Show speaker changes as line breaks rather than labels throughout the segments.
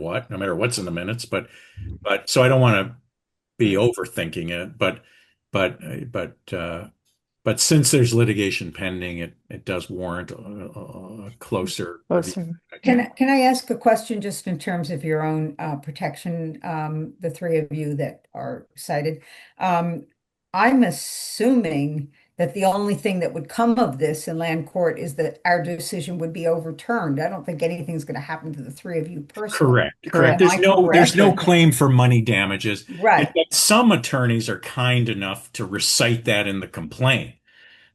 what, no matter what's in the minutes. But but so I don't want to be overthinking it. But but but uh, but since there's litigation pending, it it does warrant a, a a closer. review.
Closer.
Can, I- can I ask a question just in terms of your own uh, protection, um, the three of you that are cited? Um, I'm assuming that the only thing that would come of this in land court is that our decision would be overturned. I don't think anything's going to happen to the three of you personally.
Correct.
Correct.
Correct. There's
Am I
no there's no
correct?
claim for money damages. In
Right,
fact, Some attorneys are kind enough to recite that in the complaint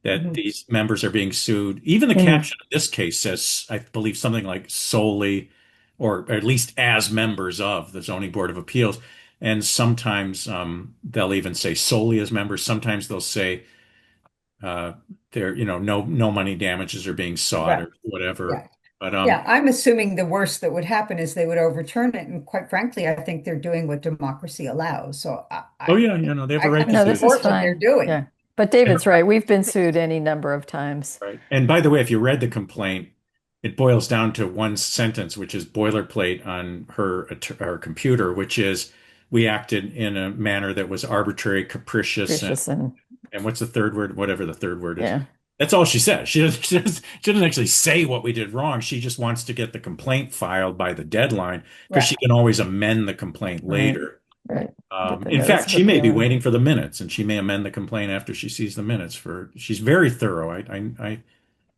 that
Mhm.
these members are being sued. Even the
Mm-hmm.
Mhm.
caption of this case says, I believe, something like solely or at least as members of the Zoning Board of Appeals. And sometimes um, they'll even say solely as members. Sometimes they'll say uh, there, you know, no no money damages are being sought
Right.
or whatever.
Right.
But um,
yeah, I'm assuming the worst that would happen is they would overturn it, and quite frankly, I think they're doing what democracy allows, so I. I-
oh yeah, you know, they have
I-
a
I
right
No,
to
this
sue.
is
support what They're
fine.
doing.
Yeah. But David's right. We've been sued any number of times.
Right. And by the way, if you read the complaint, it boils down to one sentence, which is boilerplate on her att- her computer, which is we acted in a manner that was arbitrary, capricious, and,
Gracious and
and what's the third word? Whatever the third word is.
yeah.
That's all she says. She doesn't, she doesn't she doesn't actually say what we did wrong. She just wants to get the complaint filed by the deadline because
Right.
she can always amend the complaint
Right.
later.
Right.
Um,
Get the
in fact,
notice
she may be
appealing.
waiting for the minutes, and she may amend the complaint after she sees the minutes. For she's very thorough. I I, I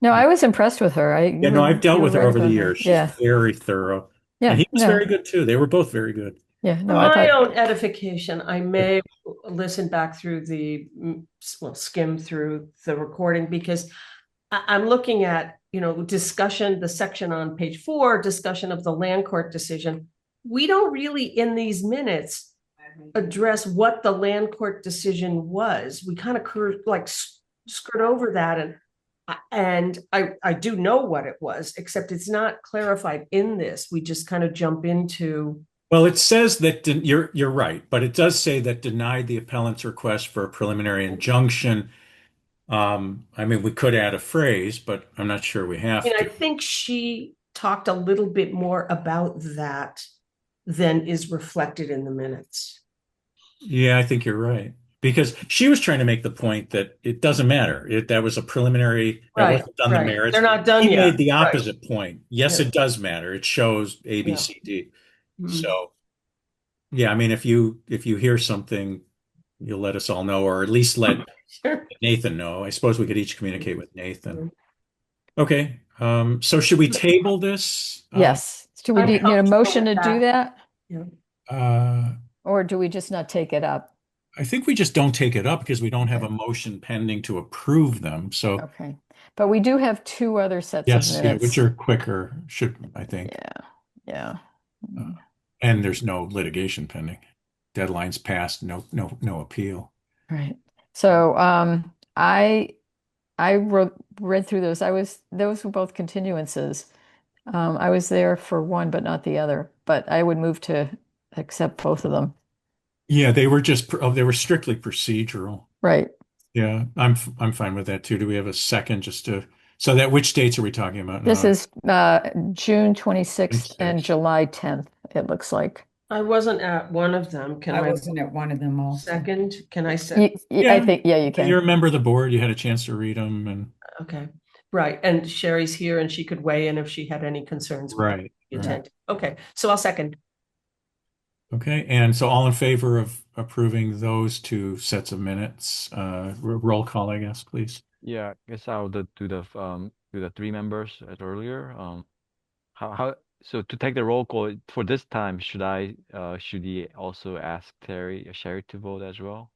No, I was impressed with her. I
yeah, no, I've dealt with her over the years. She's
Yeah.
very thorough.
Yeah.
and he was
no,
very good too. They were both very good.
Yeah.
For
No, I
my
thought
own edification, I may listen back through the, mm, s- well, skim through the recording because I, I'm looking at, you know, discussion, the section on page four, discussion of the land court decision. We don't really, in these minutes, address what the land court decision was. We kind of cur- like s- skirt over that and I- and I, I do know what it was, except it's not clarified in this. We just kind of jump into
Well, it says that den- you're you're right, but it does say that denied the appellant's request for a preliminary injunction. Um, I mean, we could add a phrase, but I'm not sure we have
And I
to.
think she talked a little bit more about that than is reflected in the minutes.
Yeah, I think you're right. Because she was trying to make the point that it doesn't matter. It, that was a preliminary, that
Right,
wasn't done the
right.
merits.
They're not done
He
yet.
made the
Right.
opposite point. Yes,
Yeah.
it does matter. It shows A, B,
Yeah.
C, D.
Mm-hmm.
So, yeah, I mean, if you if you hear something, you'll let us all know, or at least let
Sure.
Nathan know. I suppose we could each communicate with
Mm-hmm.
Nathan. Okay, um, so should we table this? Uh,
yes. Do we
I'm
need, need a
comfortable
motion to
with
do that?
Uh,
Or do we just not take it up?
I think we just don't take it up because we don't have a motion pending to approve them. So
Okay. But we do have two other sets
yes,
of
yeah,
minutes.
which are quicker, should, I think.
Yeah. Yeah.
Uh,
Mm.
And there's no litigation pending. Deadline's passed, no, no, no appeal.
Right. So um I I wrote read through those. I was those were both continuances. Um I was there for one but not the other, but I would move to accept both of them.
Yeah, they were just, oh, they were strictly procedural.
Right.
Yeah, I'm f- I'm fine with that too. Do we have a second just to, so that which dates are we talking about
This
now?
is uh June 26th and
26th.
July 10th, it looks like.
I wasn't at one of them. Can
I
I
wasn't at one of them also.
second? Can I
Y-
say?
y- I
Yeah.
think yeah, you
You're a
can.
member of the board, you had a chance to read them and
Okay, right. And Sherry's here and she could weigh in if she had any concerns. with
right.
the
right.
intent. Okay, so I'll second.
Okay, and so all in favor of approving those two sets of minutes, uh, r- roll call, I guess, please.
Yeah, I guess I'll do do the f- um do the three members as earlier. Um, how how so to take the roll call for this time? Should I uh should he also ask Terry uh, Sherry to vote as well?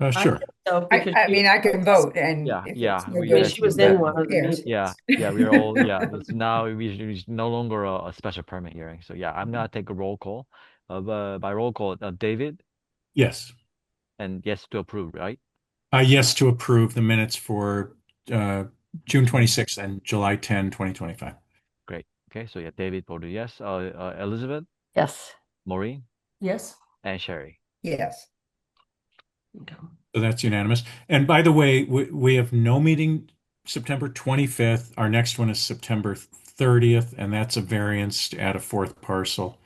Uh,
I
sure.
So
I,
because
I
she-
mean, I can vote and.
Yeah,
if
yeah,
it's no
we
Yeah,
good,
she was in
Yeah.
one of the
Yeah.
meetings.
Yeah, yeah, we are all yeah. It's now we it's no longer a, a special permit hearing. So yeah, I'm gonna take a roll call. Uh, bu- by roll call, uh, David
Yes.
and yes to approve, right?
Uh, yes to approve the minutes for, uh, June 26th and July 10, 2025.
Okay, so yeah, David voted yes. Uh, uh Elizabeth,
Yes.
Maureen,
Yes.
and Sherry.
Yes,
Okay.
So that's unanimous. And by the way, we, we have no meeting September 25th. Our next one is September thirtieth, and that's a variance to add a fourth parcel.